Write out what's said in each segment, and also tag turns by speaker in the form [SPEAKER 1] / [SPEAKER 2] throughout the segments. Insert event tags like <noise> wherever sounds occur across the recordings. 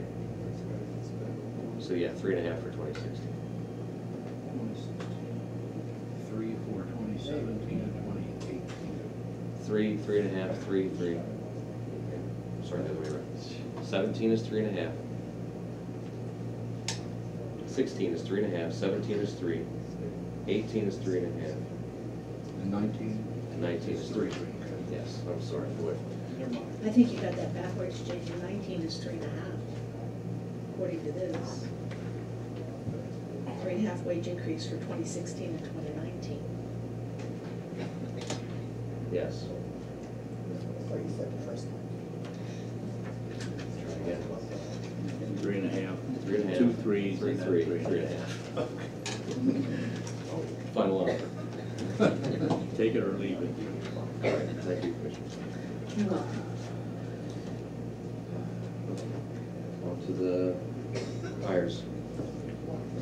[SPEAKER 1] <laughs> So yeah, three and a half for twenty sixteen.
[SPEAKER 2] Three for twenty seventeen and twenty eighteen.
[SPEAKER 1] Three, three and a half, three, three. Sorry, the other way around. Seventeen is three and a half. Sixteen is three and a half, seventeen is three, eighteen is three and a half,
[SPEAKER 2] And nineteen?
[SPEAKER 1] and nineteen is three. Yes, I'm sorry, boy.
[SPEAKER 3] I think you got that backwards, Jason, nineteen is three and a half, according to this. Three and a half wage increase for twenty sixteen and twenty nineteen.
[SPEAKER 1] Yes.
[SPEAKER 4] Thought you said the first one.
[SPEAKER 1] Try again.
[SPEAKER 5] Three and a half.
[SPEAKER 1] Three and a half.
[SPEAKER 5] Two threes.
[SPEAKER 1] Three,
[SPEAKER 5] and then
[SPEAKER 1] three,
[SPEAKER 5] three
[SPEAKER 1] three and a half. <laughs> Oh, Final offer.
[SPEAKER 5] Take it or leave it.
[SPEAKER 1] All right, thank you, Commissioner.
[SPEAKER 3] You're welcome.
[SPEAKER 1] On to the hires.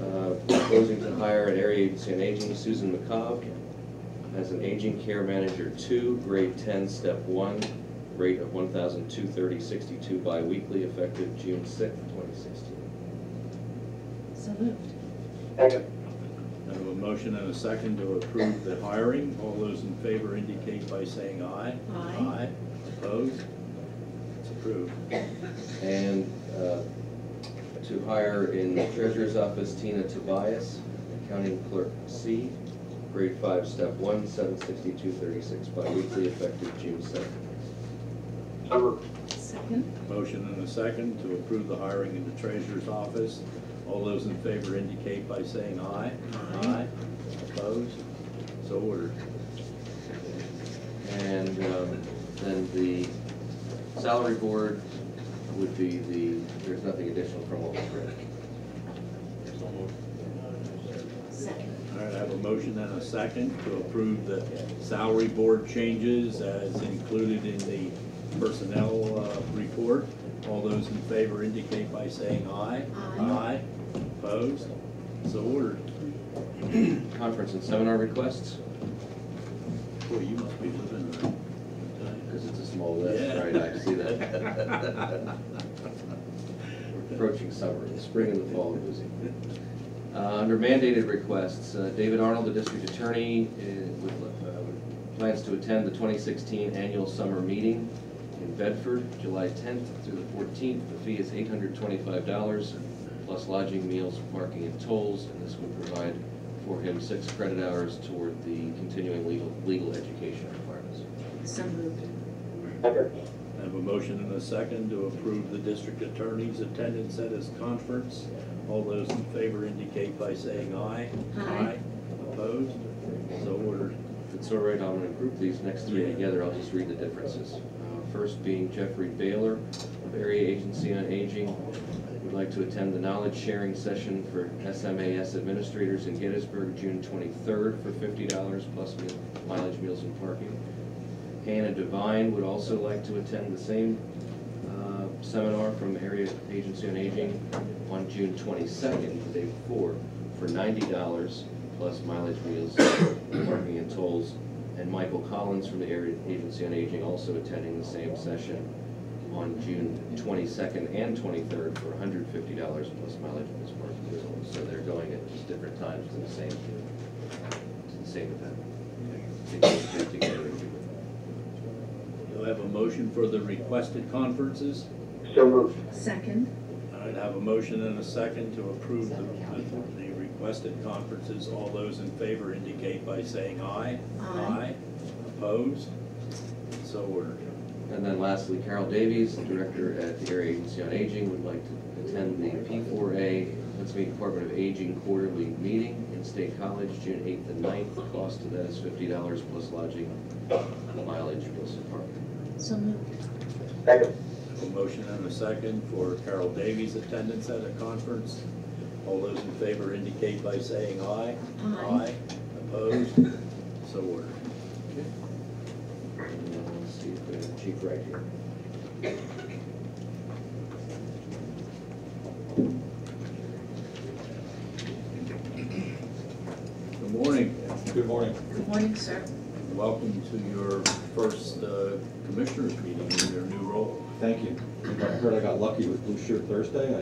[SPEAKER 1] Uh, Proposing to hire an area agency on aging, Susan McCobb, as an aging care manager two, grade ten, step one, rate of one thousand two thirty sixty-two biweekly, effective June sixth, twenty sixteen.
[SPEAKER 3] So moved.
[SPEAKER 5] I have a motion and a second to approve the hiring. All those in favor indicate by saying aye.
[SPEAKER 3] Aye.
[SPEAKER 5] Opposed? It's approved.
[SPEAKER 1] And uh, to hire in the treasurer's office Tina Tobias, accounting clerk C, grade five, step one, seven sixty-two thirty-six biweekly, effective June seventh.
[SPEAKER 3] Second?
[SPEAKER 5] Motion and a second to approve the hiring in the treasurer's office. All those in favor indicate by saying aye.
[SPEAKER 3] Aye.
[SPEAKER 5] Opposed? So ordered.
[SPEAKER 1] And um, then the salary board would be the, there's nothing additional from what was read.
[SPEAKER 3] Second.
[SPEAKER 5] All right, I have a motion and a second to approve the salary board changes as included in the personnel uh, report. All those in favor indicate by saying aye.
[SPEAKER 3] Aye.
[SPEAKER 5] Aye. Opposed? So ordered.
[SPEAKER 1] Conference and seminar requests,
[SPEAKER 5] Boy, you must be living right.
[SPEAKER 1] because it's a small list,
[SPEAKER 5] Yeah.
[SPEAKER 1] right, I see
[SPEAKER 5] <laughs>
[SPEAKER 1] that. Approaching summer, the spring and the fall are busy. Uh, Under mandated requests, uh, David Arnold, the district attorney, uh, would, uh, would- plans to attend the 2016 annual summer meeting in Bedford, July 10th through the 14th. The fee is $825, plus lodging, meals, parking, and tolls, and this would provide for him six credit hours toward the continuing legal, legal education requirements.
[SPEAKER 3] So moved.
[SPEAKER 5] I have a motion and a second to approve the district attorney's attendance at his conference. All those in favor indicate by saying aye.
[SPEAKER 3] Aye.
[SPEAKER 5] Opposed? So ordered.
[SPEAKER 1] If it's all right, I'm gonna group these next three together, I'll just read the differences. Uh, First being Jeffrey Baylor of Area Agency on Aging, would like to attend the knowledge sharing session for SMAS administrators in Gettysburg, June twenty-third, for fifty dollars plus meal- mileage, meals, and parking. Hannah Devine would also like to attend the same uh, seminar from Area Agency on Aging on June twenty-second, the day before, for ninety dollars plus mileage, meals, parking and tolls. And Michael Collins from the Area Agency on Aging also attending the same session on June twenty-second and twenty-third for hundred fifty dollars plus mileage, meals, parking and tolls. So they're going at just different times to the same, to the same event. They both get together and do it.
[SPEAKER 5] Do I have a motion for the requested conferences?
[SPEAKER 3] Second?
[SPEAKER 5] I'd have a motion and a second to approve the, the requested conferences. All those in favor indicate by saying aye.
[SPEAKER 3] Aye.
[SPEAKER 5] Opposed? So ordered.
[SPEAKER 1] And then lastly, Carol Davies, the director at the Area Agency on Aging, would like to attend the P4A, Pennsylvania Department of Aging Quarterly Meeting in State College, June 8th and 9th. The cost of that is $50 plus lodging, mileage, plus parking.
[SPEAKER 3] So moved.
[SPEAKER 5] I have A motion and a second for Carol Davies' attendance at a conference. All those in favor indicate by saying aye.
[SPEAKER 3] Aye.
[SPEAKER 5] Opposed? So ordered.
[SPEAKER 1] And then Let's see if we have the chief right here.
[SPEAKER 5] Good morning.
[SPEAKER 6] Good morning.
[SPEAKER 3] Good morning, sir.
[SPEAKER 5] Welcome to your first uh, commissioners meeting in your new role.
[SPEAKER 6] Thank you. I heard I got lucky with Blue Shirt Thursday.